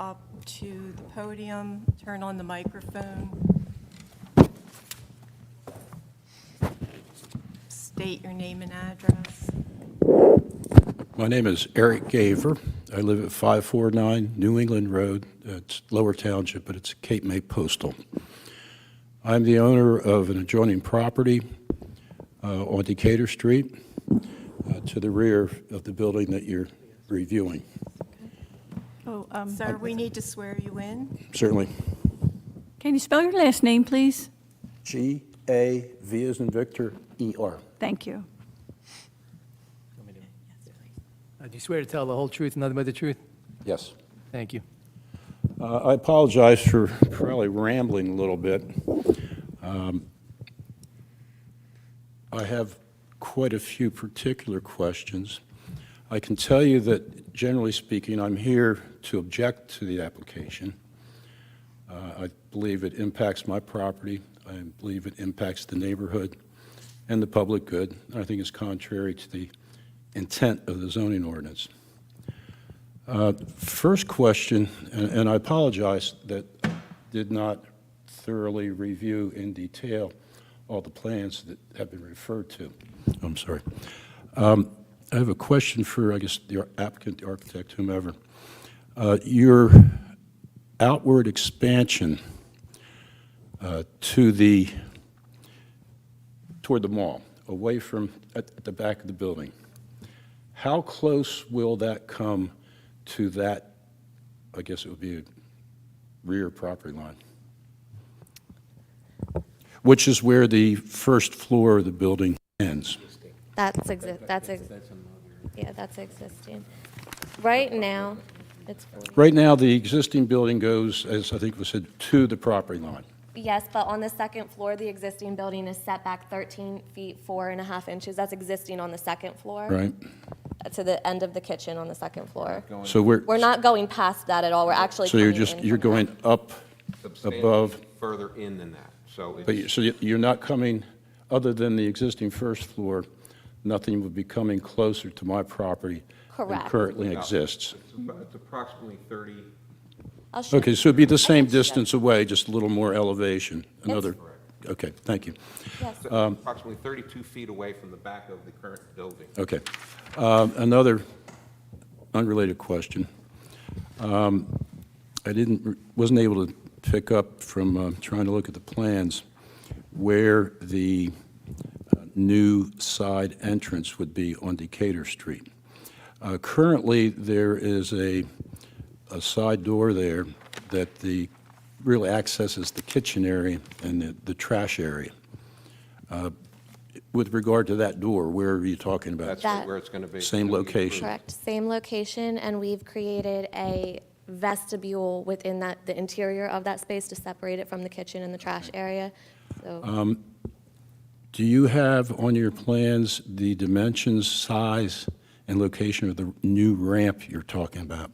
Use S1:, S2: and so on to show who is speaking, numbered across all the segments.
S1: up to the podium, turn on the microphone. State your name and address.
S2: My name is Eric Gaver. I live at 549 New England Road. It's Lower Township, but it's Cape May Postal. I'm the owner of an adjoining property uh, on Decatur Street uh, to the rear of the building that you're reviewing.
S3: Oh, um,
S1: Sir, we need to swear you in.
S2: Certainly.
S3: can you spell your last name, please?
S2: G A V as in Victor, E R.
S3: Thank you.
S4: Uh, Do you swear to tell the whole truth and nothing but the truth?
S2: Yes.
S4: Thank you.
S2: Uh, I apologize for probably rambling a little bit. Um, I have quite a few particular questions. I can tell you that, generally speaking, I'm here to object to the application. Uh, I believe it impacts my property, I believe it impacts the neighborhood and the public good, and I think it's contrary to the intent of the zoning ordinance. First question, and and I apologize that I did not thoroughly review in detail all the plans that have been referred to. I'm sorry. Um, I have a question for, I guess, the applicant, the architect, whomever. Uh, Your outward expansion uh, to the, toward the mall, away from, at at the back of the building, how close will that come to that, I guess it would be a rear property line? Which is where the first floor of the building ends.
S5: That's exist, that's, ex- yeah, that's existing. Right now, it's,
S2: Right now, the existing building goes, as I think was said, to the property line.
S5: yes, but on the second floor, the existing building is set back 13 feet, four and a half inches. That's existing on the second floor. uh,
S2: Right.
S5: To the end of the kitchen on the second floor.
S2: So we're,
S5: We're not going past that at all. We're actually
S2: so you're
S5: coming
S2: just,
S5: in
S2: you're
S5: from that.
S2: going up above,
S6: substantially further in than that, so
S2: but you,
S6: it's,
S2: so you- you're not coming, other than the existing first floor, nothing would be coming closer to my property than
S5: Correct.
S2: currently exists.
S6: it's approximately 30,
S5: I'll show
S2: Okay,
S5: you.
S2: so it'd be the same
S5: can see that.
S2: distance away, just a little more elevation, another, okay, thank you,
S5: Yes.
S2: Um,
S6: approximately 32 feet away from the back of the current building.
S2: okay. Um, Another unrelated question. Um, I didn't, wasn't able to pick up from uh, trying to look at the plans where the uh, new side entrance would be on Decatur Street. Uh, Currently, there is a, a side door there that the, really accesses the kitchen area and the, the trash area. Uh, With regard to that door, where are you talking about?
S6: That's
S5: That-
S6: where it's going to be. It's
S2: Same
S6: gonna be
S2: location.
S6: approved.
S5: Correct, same location, and we've created a vestibule within that, the interior of that space to separate it from the kitchen and the trash area. So
S2: Do you have on your plans the dimensions, size, and location of the new ramp you're talking about?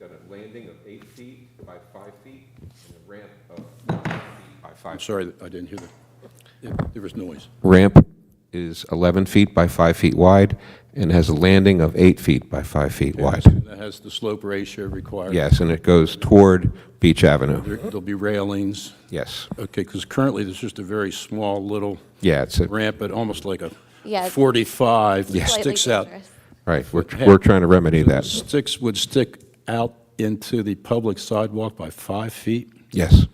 S6: Got a landing of eight feet by five feet and a ramp of nine feet by
S2: I'm
S6: five.
S2: sorry, I didn't hear that. There was noise.
S6: Ramp is 11 feet by five feet wide and has a landing of eight feet by five feet wide.
S2: That has the slope ratio required.
S6: Yes, and it goes toward Beach Avenue.
S2: There- There'll be railings.
S6: Yes,
S2: Okay, because currently, there's just a very small little
S6: yeah, it's, a-
S2: ramp, but almost like a
S5: Yeah, it's
S2: 45 that
S5: slightly
S2: sticks out.
S5: dangerous.
S6: right, we're, we're trying to remedy that.
S2: Sticks would stick out into the public sidewalk by five feet?
S6: Yes,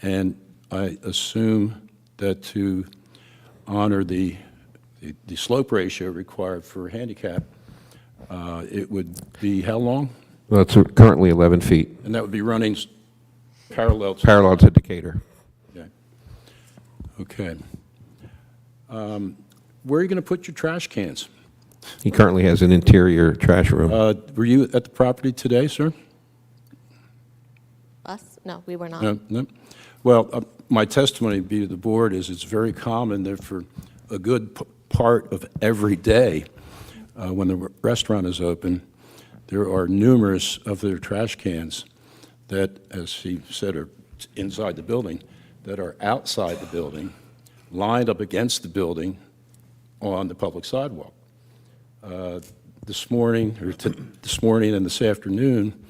S2: And I assume that to honor the, the- the slope ratio required for handicap, uh, it would be how long?
S6: well, it's currently 11 feet,
S2: And that would be running s- parallel to,
S6: parallel to Decatur.
S2: okay. Okay. Um, Where are you going to put your trash cans?
S6: He currently has an interior trash room.
S2: Uh, Were you at the property today, sir?
S5: Us? No, we were not.
S2: No, no. Well, uh, my testimony be to the board is it's very common that for a good p- part of every day, uh, when the restaurant is open, there are numerous of their trash cans that, as he said, are inside the building, that are outside the building, lined up against the building on the public Uh, sidewalk this morning, or t- this morning and this afternoon,